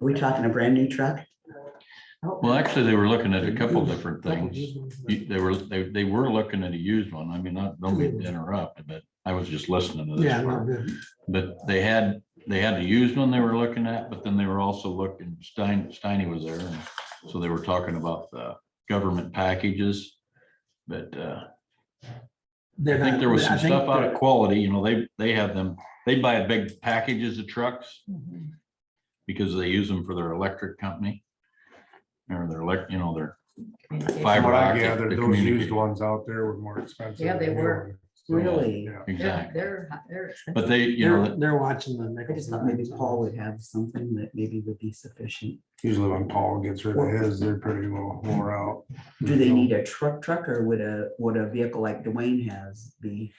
we talking a brand new Oh, truck? Oh, Well, actually, they were looking at a couple different things. You- They were, they, they were looking at a used one. I mean, not, don't mean to interrupt, but I was just listening to Yeah, this. no, part. good. But they had, they had a used one they were looking at, but then they were also looking, Stein, Steiny was there. and So they were talking about the government packages. But, uh, I They're think not- there was I some think stuff out they're- of quality, you know, they, they have them, they buy big packages of trucks because they use them for their electric company. Or their elect, you know, their From fiber what I optic gathered, to those used communicate. ones out there were more expensive. Yeah, they than the new were. one. Really? Yeah. Yeah, Exactly. they're, they're. But they, you They're, know, they're watching the. I nickel just thought maybe Paul would have something that maybe would be sufficient. Usually when Paul gets rid of his, they're pretty well wore out. Do Mm-hmm. they need a truck truck or would a, would a vehicle like Dwayne has be?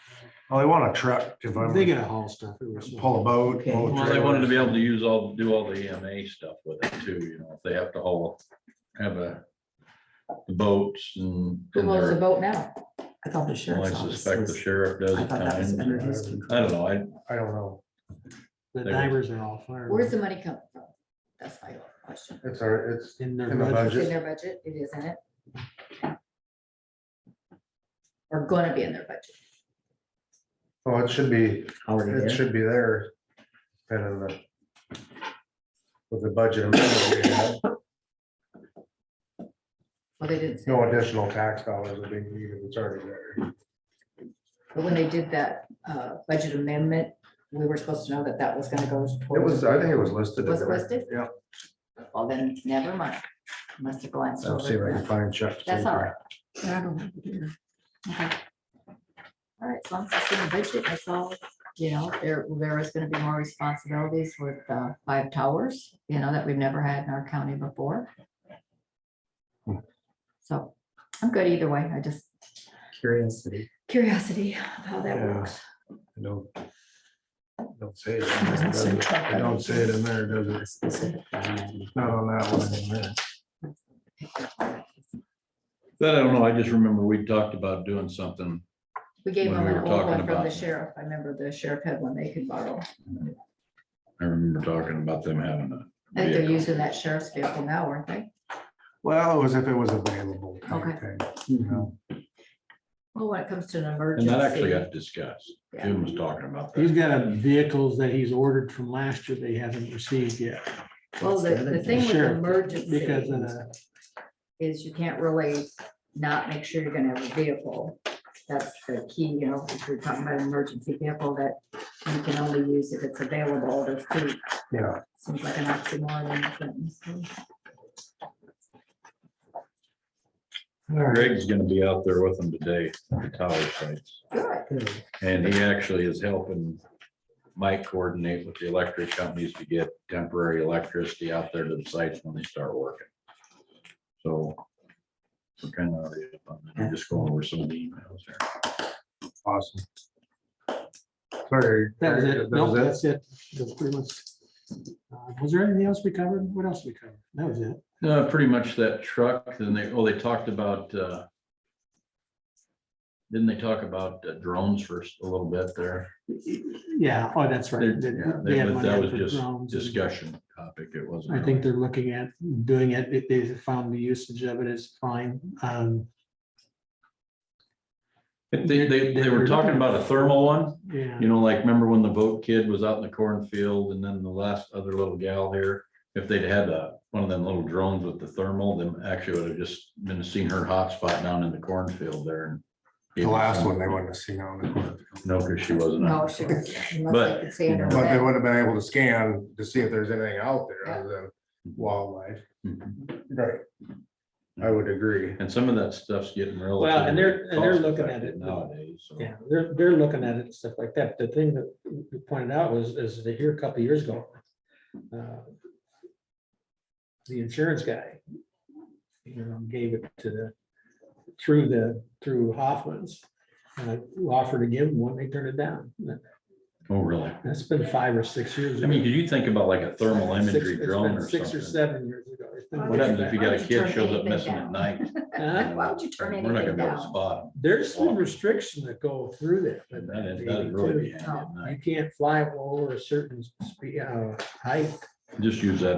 Well, they want a truck if I'm, They gotta haul stuff. It was- pull a boat. Okay. pull a well, they wanted to be trailer. able to use all, do all the EMA stuff with it too, you know, if they have to haul, have a the boats and. Who and owns the their- boat now? I thought the Well, I sheriff's office suspect the was, sheriff does uh, I at thought that was times. under his control. I don't know, I, I don't know. The They- divers are all fired. Where's the money coming from? That's my question. It's our, it's In their in the budget. It's in budget. their budget, it is in it. Or gonna be in their budget. Well, it should be, already it there. should be there. And in the. With the budget, amendment we have, Well, they didn't say, no additional tax dollars are being needed. It's already there. but when they did that uh, budget amendment, we were supposed to know that that was gonna go It towards. was, I think it was listed. in Was it there. listed? Yeah. Well, then, never mind. Must have glanced I'll see if I over. can it. find Chuck's. That's all paper. right. I don't have it here. Okay. All right, so I'm just in the budget, I saw, you know, there, there is gonna be more responsibilities with uh, five towers, you know, that we've never had in our county before. Hmm. So I'm good either way. I just Curiosity. curiosity of how that Yeah. works. I Don't. Don't say it. in there, does it? I Don't say it in there, does it? It's Not on that one in there. That I don't know, I just remember we talked about doing something. We gave When them we an were old talking one from the about- sheriff. I remember the sheriff had one they could borrow. I remember talking about them having a. I think they're vehicle. using that sheriff's vehicle now, aren't they? Well, it was if it was available. type Okay. thing, you Mhm. know. Well, when it comes to an And that actually emergency. got discussed. Yeah. Jim was talking about He's that. got a vehicles that he's ordered from last year they haven't received yet. Well, the, That's the the other thing with Sure, emergency Because, uh, is you can't really not make sure you're gonna have a vehicle. That's the key, you know, if you're talking about an emergency vehicle that you can only use if it's available to see. Yeah, Seems like an oxymoron. but- Greg's gonna be out there with them today, at the tower sites, Good. Good. and he actually is helping Mike coordinate with the electric companies to get temporary electricity out there to the sites when they start working. So we're kind of, I'm just going over some of the emails there. awesome. Sorry. That was it. That Nope, was that's it. That's pretty much. Uh, Was there anything else we covered? What else we covered? That was it. No, pretty much that truck, then they, oh, they talked about, uh. Didn't they talk about uh, drones first a little bit there? Yeah, oh, that's They- right. They- yeah, they had But money that out was for just drones and- discussion topic, it wasn't. I think they're looking at doing it, if they found the usage of it is fine. Um, really- They, they, they were talking about a thermal one, yeah, you know, like, remember when the boat kid was out in the cornfield and then the last other little gal here? If they'd had a, one of them little drones with the thermal, then actually would have just been seen her hotspot down in the cornfield there. and- The last one they wouldn't have seen on the. corner. No, because she wasn't. No, out. she was. unless But, they could see you under know- But they that. would have been able to scan to see if there's anything out there other than wildlife. Mm-hmm. Right. I would agree. And some of that stuff's getting real. Well, and they're- and they're looking at it. Nowadays. so. yeah, they're, they're looking at it and stuff like that. The thing that you pointed out was, is that here a couple of years ago, uh, the insurance guy, you know, gave it to the, through the, through Hoffman's, uh, who offered to give them one, they turned it down. Oh, really? That's been five or six years. I mean, could you think about like a thermal Six- imagery it's drone been or Six or something? seven years ago. It's been What What way happens back. if you got a Why don't you kid shows turn up missing at anything night? Huh? Why would you turn We're not gonna anything be able to down? spot There's some restrictions that go through that. but them. That is, that is really be handy at You night. can't fly over a certain speed, uh, height Just use that